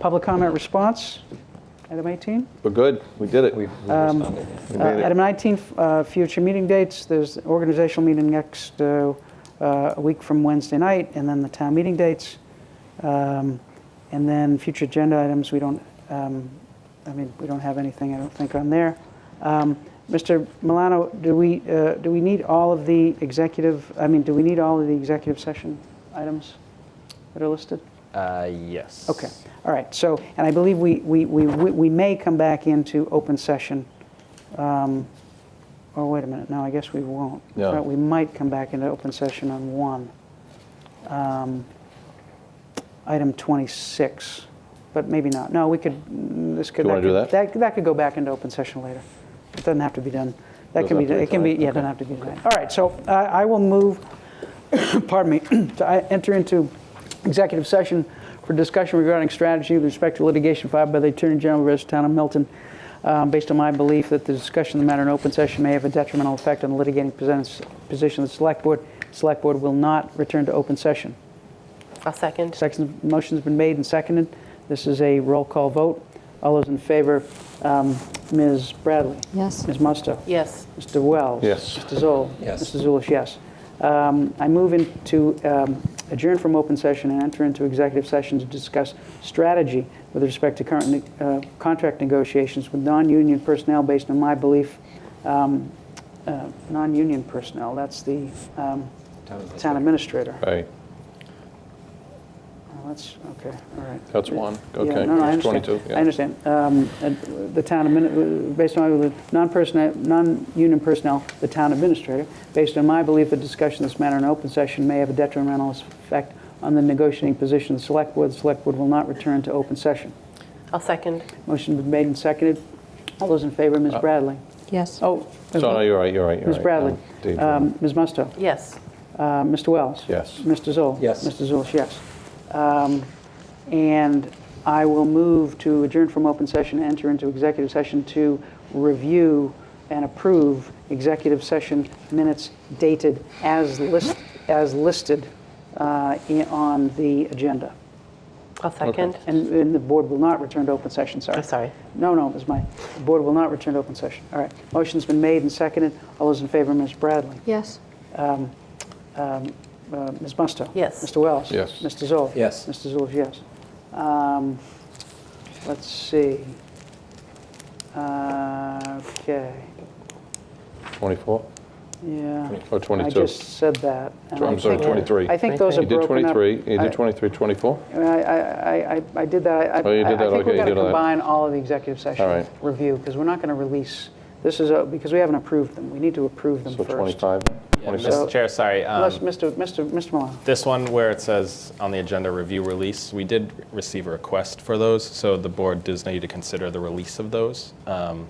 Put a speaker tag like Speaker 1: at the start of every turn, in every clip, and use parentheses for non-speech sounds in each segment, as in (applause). Speaker 1: Public comment response, item 18.
Speaker 2: We're good. We did it.
Speaker 3: We we responded.
Speaker 1: Uh, Item 19, uh, future meeting dates, there's organizational meeting next, uh, uh, a week from Wednesday night, and then the town meeting dates. Um, And then future agenda items, we don't, um, I mean, we don't have anything, I don't think, on there. Um, Mr. Milano, do we, uh, do we need all of the executive, I mean, do we need all of the executive session items that are listed?
Speaker 3: Uh, Yes.
Speaker 1: Okay, all right, so, and I believe we, we, we, we may come back into open session. um, Or wait a minute, no, I guess we won't.
Speaker 2: No.
Speaker 1: But We might come back into open session on one. Um, Item 26, but maybe not. No, we could, mm, this could.
Speaker 2: Do you wanna do
Speaker 1: could- That could go back into open session later. It doesn't have to be done. That can
Speaker 2: Doesn't
Speaker 1: be,
Speaker 2: have to be
Speaker 1: it can be,
Speaker 2: tonight?
Speaker 1: yeah, it doesn't have to be tonight. All right, so uh, I I will move (coughs) pardon me, (coughs) to I- enter into executive session for discussion regarding strategy with respect to litigation filed by the Attorney General of the Town of Milton, um, based on my belief that the discussion of the matter in open session may have a detrimental effect on the litigating presents- position of the Select Board. Select Board will not return to open session.
Speaker 4: I'll second.
Speaker 1: Second, motion's been made and seconded. This is a roll call vote. All those in favor, um, Ms. Bradley?
Speaker 5: Yes.
Speaker 1: Ms. Musto?
Speaker 4: Yes.
Speaker 1: Mr. Wells?
Speaker 2: Yes.
Speaker 1: Mr. Zoll?
Speaker 3: Yes.
Speaker 1: Mr. Zulish, yes. Um, I move into um, adjourn from open session and enter into executive session to discuss strategy with respect to current uh, contract negotiations with non-union personnel based on my belief, um, uh, non-union personnel, that's the um, town administrator.
Speaker 2: Right.
Speaker 1: Oh, That's, okay, all right.
Speaker 2: That's one.
Speaker 1: Yeah,
Speaker 2: Okay.
Speaker 1: no, no, I
Speaker 2: It's
Speaker 1: understand.
Speaker 2: 22, yeah.
Speaker 1: I understand. Um, and The town, admini- based on the non-personnel, non-union personnel, the town administrator, based on my belief that discussion of this matter in open session may have a detrimental effect on the negotiating position of the select board, the select board will not return to open session.
Speaker 4: I'll second.
Speaker 1: Motion been made and seconded. All those in favor,
Speaker 2: Uh,
Speaker 1: Ms. Bradley?
Speaker 5: Yes.
Speaker 1: Oh, Ms.
Speaker 2: So, no, you're right, you're right, you're
Speaker 1: Ms.
Speaker 2: right.
Speaker 1: Bradley,
Speaker 2: Um, Dave,
Speaker 1: Um, Ms. Musto,
Speaker 4: Yes.
Speaker 1: uh, Mr. Wells?
Speaker 2: Yes.
Speaker 1: Mr. Zoll?
Speaker 3: Yes.
Speaker 1: Mr. Zulish, yes. Um, And I will move to adjourn from open session, enter into executive session to review and approve executive session minutes dated as list, as listed uh, in- on the agenda.
Speaker 4: I'll second.
Speaker 1: And and the board will not return to open session, sorry.
Speaker 4: I'm sorry.
Speaker 1: No, no, it was mine. The board will not return to open session. All right. Motion's been made and seconded. All those in favor, Ms. Bradley?
Speaker 5: Yes.
Speaker 1: Uh, Ms. Musto?
Speaker 4: Yes.
Speaker 1: Mr. Wells?
Speaker 2: Yes.
Speaker 1: Mr. Zoll?
Speaker 3: Yes.
Speaker 1: Mr. Zoll, yes. Um, Let's see. Uh, Okay,
Speaker 2: 24
Speaker 1: yeah.
Speaker 2: or
Speaker 1: I
Speaker 2: 22?
Speaker 1: just said that. and I
Speaker 2: I'm sorry,
Speaker 1: think-
Speaker 2: 23.
Speaker 1: I think those are
Speaker 2: You did
Speaker 1: broken up.
Speaker 2: 23, you
Speaker 1: I-
Speaker 2: did 23, 24?
Speaker 1: I, I, I- I did that. I-
Speaker 2: Oh, you did that,
Speaker 1: I think
Speaker 2: okay,
Speaker 1: we've
Speaker 2: you
Speaker 1: got to
Speaker 2: did all that.
Speaker 1: combine all of the executive
Speaker 2: All
Speaker 1: session
Speaker 2: right.
Speaker 1: review, because we're not going to release, this is, a- because we haven't approved them. We need to approve them
Speaker 2: So
Speaker 1: first.
Speaker 2: 25?
Speaker 3: Yeah,
Speaker 2: 26.
Speaker 1: So-
Speaker 6: Mr. Chair, sorry. um,
Speaker 1: Unless, Mr. Mr. Mr. Milano.
Speaker 6: This one where it says on the agenda, review release, we did receive a request for those, so the board does need to consider the release of those. Um,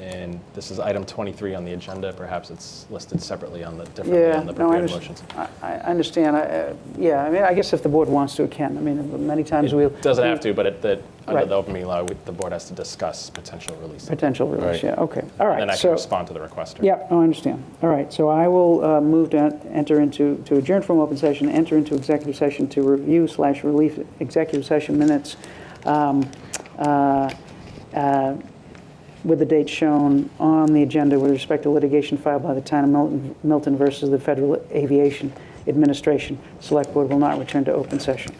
Speaker 6: And this is item 23 on the agenda, perhaps it's listed separately on the, differently
Speaker 1: Yeah,
Speaker 6: on the
Speaker 1: no, I
Speaker 6: prepared
Speaker 1: understand.
Speaker 6: motions.
Speaker 1: I I understand. I, uh, Yeah, I mean, I guess if the board wants to, it can. I mean, many times we'll.
Speaker 6: It Doesn't have to, but it, that, under
Speaker 1: Right.
Speaker 6: the open meeting law, we- the board has to discuss potential release. And
Speaker 1: Potential release,
Speaker 2: Right.
Speaker 1: yeah, okay. All right.
Speaker 6: Then I
Speaker 1: so-
Speaker 6: can respond to the requester.
Speaker 1: Yeah, no, I understand. All right, so I will uh, move to enter into, to adjourn from open session, enter into executive session to review slash relief executive session minutes um, uh, uh, with the date shown on the agenda with respect to litigation filed by the town of Milton- Milton versus the Federal Aviation Administration. Select Board will not return to open session.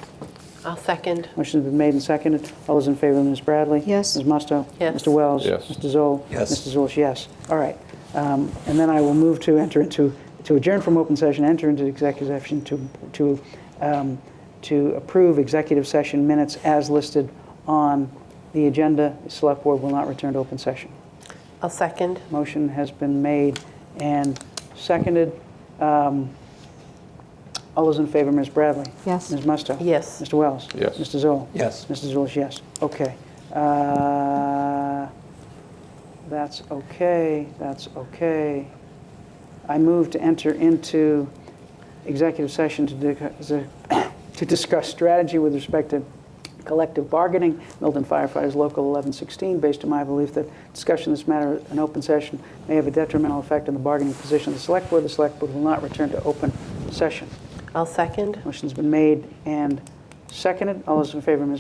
Speaker 4: I'll second.
Speaker 1: Motion's been made and seconded. All those in favor, Ms. Bradley?
Speaker 5: Yes.
Speaker 1: Ms. Musto?
Speaker 4: Yes.
Speaker 1: Mr. Wells?
Speaker 2: Yes.
Speaker 1: Mr. Zoll?
Speaker 3: Yes.
Speaker 1: Mr. Zulish, yes. All right. Um, And then I will move to enter into, to adjourn from open session, enter into executive session to, to, um, to approve executive session minutes as listed on the agenda. Select Board will not return to open session.
Speaker 4: I'll second.
Speaker 1: Motion has been made and seconded. Um, All those in favor, Ms. Bradley?
Speaker 5: Yes.
Speaker 1: Ms. Musto?
Speaker 4: Yes.
Speaker 1: Mr. Wells?
Speaker 2: Yes.
Speaker 1: Mr. Zoll?
Speaker 3: Yes.
Speaker 1: Mr. Zulish, yes. Okay. Uh, That's okay, that's okay. I move to enter into executive session to (coughs) di- to discuss strategy with respect to collective bargaining, Milton Firefighters Local 1116, based on my belief that discussion of this matter in open session may have a detrimental effect on the bargaining position of the Select Board. The Select Board will not return to open session.
Speaker 4: I'll second.
Speaker 1: Motion's been made and seconded. All those in favor, Ms.